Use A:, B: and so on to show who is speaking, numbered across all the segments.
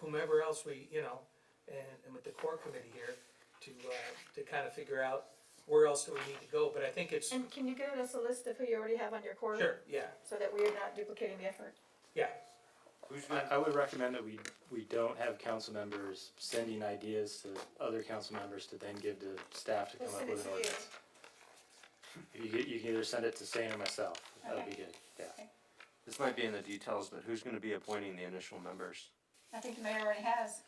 A: whomever else we, you know, and, and with the core committee here, to, uh, to kind of figure out where else do we need to go, but I think it's,
B: And can you give us a list of who you already have on your core?
A: sure, yeah,
B: So that we are not duplicating the effort.
A: yeah,
C: I, I would recommend that we, we don't have council members sending ideas to other council members to then give to staff to come
B: We'll
C: up
B: send it
C: with
B: to
C: an
B: you.
C: ordinance. You can, you can either send it to Stan or myself, that'd be
D: Okay.
C: good, yeah.
E: This might be in the details, but who's gonna be appointing the initial members?
D: I think the mayor already has.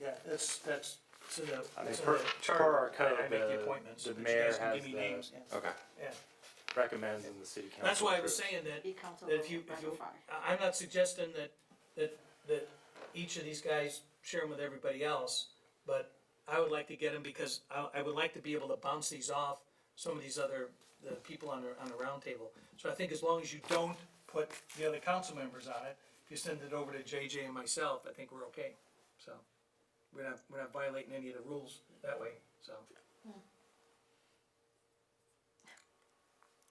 F: Yeah, that's, that's, it's in the,
C: I mean,
F: it's in
C: per,
F: the
C: per our
F: charter,
C: code,
F: I- I make the appointments,
C: the,
F: but
C: the
F: you
C: mayor
F: guys can
C: has
F: give me names,
C: the,
F: yeah.
E: Okay.
A: yeah.
C: recommends and the city council.
A: That's why I was
C: approves.
A: saying that,
G: Be council
A: that if you, if
G: by
A: you,
G: far.
A: I- I'm not suggesting that, that, that each of these guys share them with everybody else, but I would like to get them because I, I would like to be able to bounce these off some of these other, the people on the, on the roundtable. So I think as long as you don't put the other council members on it, if you send it over to JJ and myself, I think we're okay, so. We're not, we're not violating any of the rules that way, so.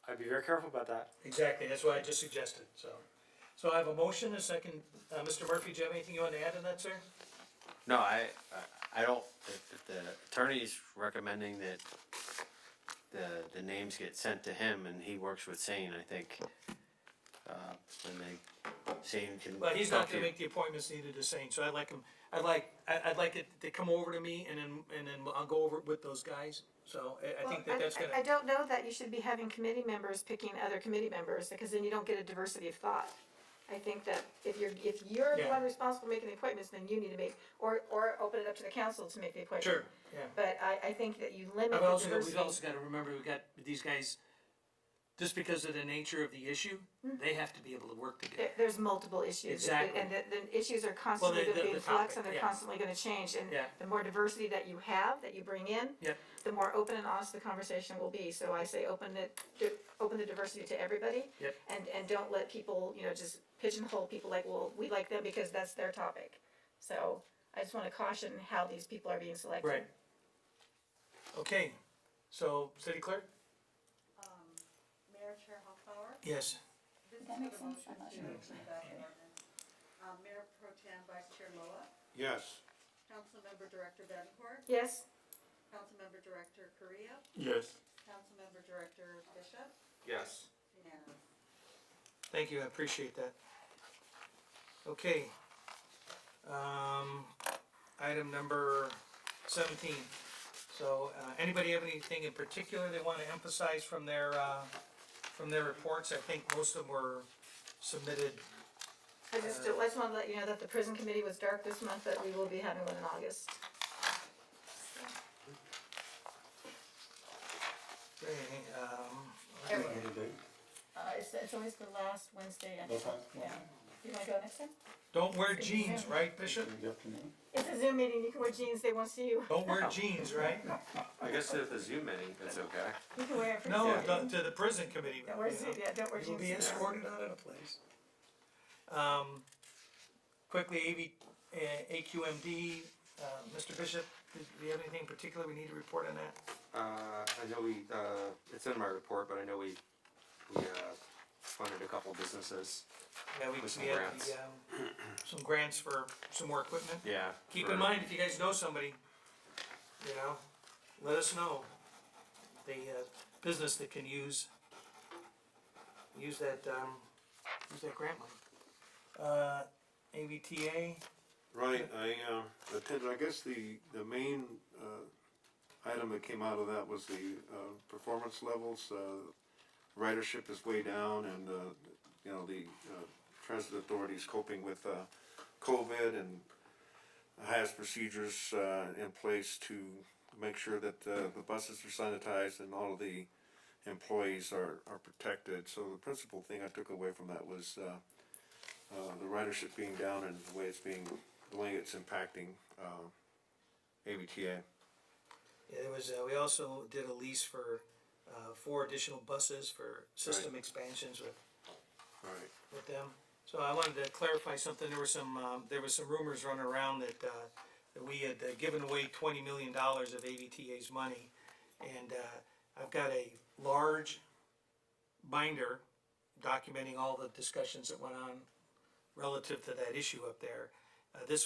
C: I'd be very careful about that.
A: Exactly, that's why I just suggested, so. So I have a motion, a second, uh, Mr. Murphy, do you have anything you want to add to that, sir?
E: No, I, I- I don't, if, if the attorney's recommending that the, the names get sent to him and he works with Sane, I think, uh, when they, Sane can.
A: Well, he's
E: talk
A: not
E: to
A: gonna
E: you.
A: make the appointments needed to Sane, so I'd like him, I'd like, I, I'd like it to come over to me and then, and then I'll go over it with those guys. So I, I think
B: Well,
A: that that's
B: I
A: gonna,
B: don't know that you should be having committee members picking other committee members, because then you don't get a diversity of thought. I think that if you're, if you're the
A: Yeah.
B: one responsible for making the appointments, then you need to make, or, or open it up to the council to make the appointment.
A: sure, yeah.
B: But I, I think that you limit
A: I've
B: the
A: also, got- we've
B: diversity.
A: also gotta remember, we've got these guys, just because of the nature of the issue,
B: Mm-hmm.
A: they have to be able to work together.
B: There, there's multiple issues.
A: Exactly.
B: And the, the issues are constantly
A: the-
B: gonna be
A: the
B: in
A: topic,
B: flux and they're
A: yeah.
B: constantly gonna change, and
A: Yeah.
B: the more diversity that you have, that you bring in,
A: Yep,
B: the more open and honest the conversation will be. So I say open it, di- open the diversity to everybody.
A: Yep.
B: And, and don't let people, you know, just pigeonhole people like, well, we like them because that's their topic. So I just wanna caution how these people are being selected.
A: right. Okay, so city clerk?
H: Mayor Chair Hoffbauer,
A: Yes.
H: this is
D: That
H: for
D: makes
H: the
D: sense.
H: motion
D: I'm not
H: to
D: sure.
H: approve that ordinance. Um, Mayor Pro Tem Vice Chair Loa,
F: Yes.
H: Councilmember Director Benford,
B: Yes,
H: Councilmember Director Correa,
F: Yes.
H: Councilmember Director Bishop,
F: Yes.
H: unanimous.
A: Thank you, I appreciate that. Okay. Um, item number seventeen. So, uh, anybody have anything in particular they wanna emphasize from their, uh, from their reports? I think most of them were submitted.
B: I just, I just wanna let you know that the prison committee was dark this month, but we will be having one in August.
A: uh, Um,
B: Uh, it's, it's always the last Wednesday, I think, yeah. You wanna go next time?
A: don't wear jeans, right, Bishop?
B: It's a Zoom meeting, you can wear jeans, they won't see you.
A: Don't wear jeans, right?
E: I guess if the Zoom meeting, it's okay.
B: You can wear a.
A: No,
E: Yeah.
A: to- to the prison committee.
B: Don't wear,
A: you know.
B: Zoom- yeah, don't wear
A: You'll
B: jeans.
A: be escorted out of the place. Um, quickly, AV, uh, AQMD, uh, Mr. Bishop, do do you have anything particular we need to report on that?
E: Uh, I know we, uh, it's in my report, but I know we, we, uh, funded a couple businesses.
A: Yeah, we,
E: With some
A: we had
E: grants.
A: the, um, some grants for some more equipment.
E: Yeah.
A: Keep
E: for-
A: in mind, if you guys know somebody, you know, let us know. The, uh, business that can use, use that, um, use that grant money. Uh, AVTA,
I: Right, I uh, attended, I guess the, the main uh, item that came out of that was the uh, performance levels. uh, Ridership is way down and, uh, you know, the uh, transit authorities coping with uh, COVID and has procedures uh, in place to make sure that uh, the buses are sanitized and all of the employees are, are protected. So the principal thing I took away from that was uh, uh, the ridership being down and the way it's being, the way it's impacting, uh, ABTA.
A: Yeah, there was, uh, we also did a lease for, uh, four additional buses for system expansions with,
I: Right.
A: with them. So I wanted to clarify something, there were some, um, there was some rumors running around that, uh, that we had uh, given away twenty million dollars of AVTA's money. And, uh, I've got a large binder documenting all the discussions that went on relative to that issue up there. Uh, this